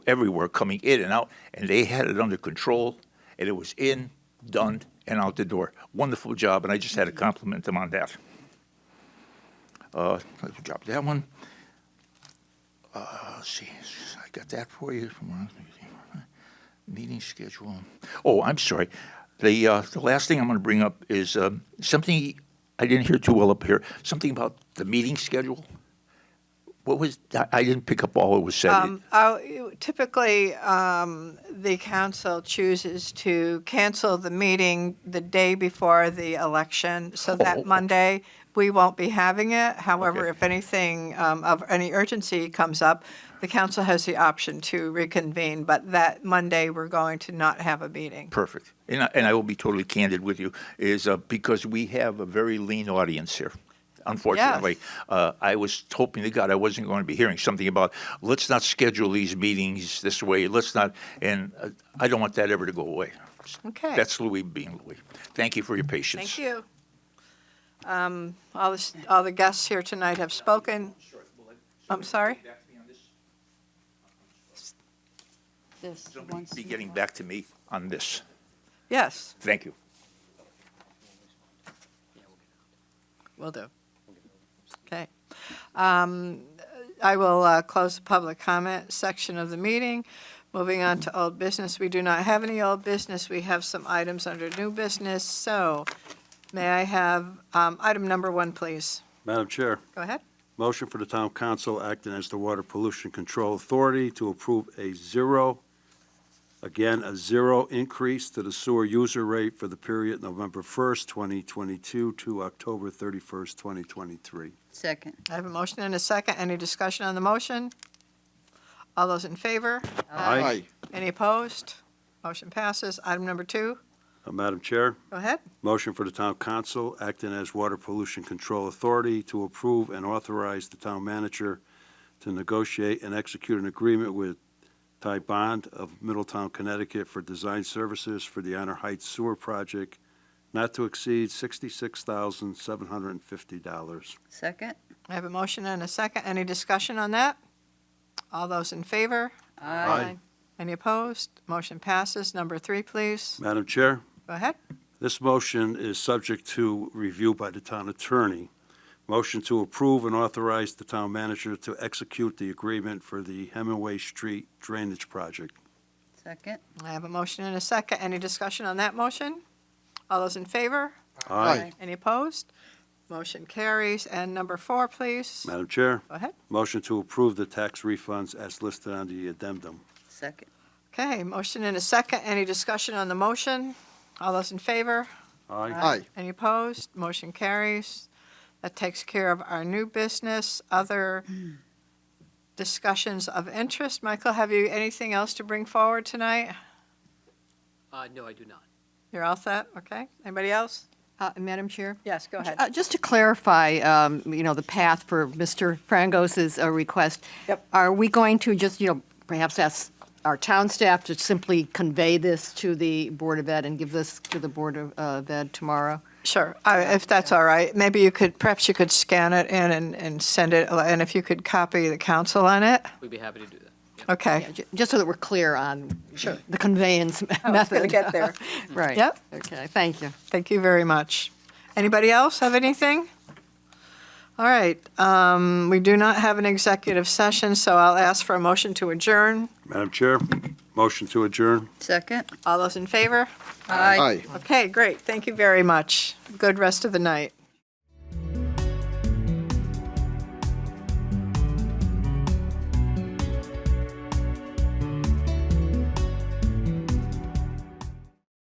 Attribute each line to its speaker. Speaker 1: everywhere coming in and out, and they had it under control, and it was in, done, and out the door. Wonderful job, and I just had to compliment them on that. Uh, let's drop that one. Uh, let's see, I got that for you. Meeting schedule. Oh, I'm sorry. The uh, the last thing I'm going to bring up is um, something I didn't hear too well up here. Something about the meeting schedule. What was I- I didn't pick up all it was said.
Speaker 2: Um, uh, you- Typically, um, the council chooses to cancel the meeting the day before the election, so
Speaker 1: Oh.
Speaker 2: that Monday, we won't be having it. However,
Speaker 1: Okay.
Speaker 2: if anything um, of any urgency comes up, the council has the option to reconvene, but that Monday, we're going to not have a meeting.
Speaker 1: Perfect. And I, and I will be totally candid with you, is uh, because we have a very lean audience here. Unfortunately, uh, I was hoping to God I wasn't going to be hearing something about let's not schedule these meetings this way. Let's not, and uh, I don't want that ever to go away.
Speaker 2: Okay.
Speaker 1: That's Louis being Louis. Thank you for your patience.
Speaker 2: Thank you. Um, All this- all the guests here tonight have spoken. I'm sorry?
Speaker 3: This
Speaker 1: Somebody
Speaker 3: once.
Speaker 1: be
Speaker 3: in a
Speaker 1: getting
Speaker 3: while.
Speaker 1: back to me on this.
Speaker 2: Yes,
Speaker 1: Thank you.
Speaker 2: we will do. Okay. Um, I will uh, close the public comment section of the meeting. Moving on to old business, we do not have any old business. We have some items under new business, so may I have um, item number one, please?
Speaker 4: Madam Chair,
Speaker 2: Go ahead.
Speaker 4: motion for the town council acting as the Water Pollution Control Authority to approve a zero, again, a zero increase to the sewer user rate for the period November 1st, 2022 to October 31st, 2023.
Speaker 3: Second.
Speaker 2: I have a motion and a second. Any discussion on the motion? All those in favor?
Speaker 4: Aye.
Speaker 2: Any opposed? Motion passes. Item number two,
Speaker 4: Uh, Madam Chair,
Speaker 2: go ahead.
Speaker 4: motion for the town council acting as Water Pollution Control Authority to approve and authorize the town manager to negotiate and execute an agreement with Ty Bond of Middletown, Connecticut for design services for the Honor Heights Sewer Project, not to exceed $66,750.
Speaker 3: Second.
Speaker 2: I have a motion and a second. Any discussion on that? All those in favor?
Speaker 4: Aye.
Speaker 2: Any opposed? Motion passes. Number three, please.
Speaker 4: Madam Chair?
Speaker 2: Go ahead.
Speaker 4: This motion is subject to review by the town attorney. Motion to approve and authorize the town manager to execute the agreement for the Hemingway Street Drainage Project.
Speaker 3: Second.
Speaker 2: I have a motion and a second. Any discussion on that motion? All those in favor?
Speaker 3: Aye.
Speaker 2: Any opposed? Motion carries. And number four, please.
Speaker 4: Madam Chair,
Speaker 2: Go ahead.
Speaker 4: motion to approve the tax refunds as listed on the addendum.
Speaker 3: Second.
Speaker 2: Okay, motion and a second. Any discussion on the motion? All those in favor?
Speaker 3: Aye.
Speaker 2: Any opposed? Motion carries. That takes care of our new business. Other discussions of interest. Michael, have you anything else to bring forward tonight?
Speaker 5: Uh, no, I do not.
Speaker 2: You're all set, okay? Anybody else?
Speaker 6: Uh, Madam Chair?
Speaker 2: Yes, go ahead.
Speaker 6: Uh, Just to clarify, um, you know, the path for Mr. Frangos's uh, request.
Speaker 2: Yep.
Speaker 6: Are we going to just, you know, perhaps ask our town staff to simply convey this to the Board of Ed and give this to the Board of uh, Ed tomorrow?
Speaker 2: Sure, I- if that's all right. Maybe you could, perhaps you could scan it in and, and send it, and if you could copy the council on it?
Speaker 5: We'd be happy to do that. Yeah.
Speaker 2: Okay,
Speaker 6: Ju- Just so that we're clear on the conveyance method.
Speaker 2: Oh, get there.
Speaker 6: Right.
Speaker 2: Yep.
Speaker 6: Okay, thank you.
Speaker 2: Thank you very much. Anybody else have anything? All right, um, we do not have an executive session, so I'll ask for a motion to adjourn.
Speaker 4: Madam Chair, motion to adjourn.
Speaker 3: Second.
Speaker 2: All those in favor?
Speaker 3: Aye.
Speaker 2: Okay, great, thank you very much. Good rest of the night.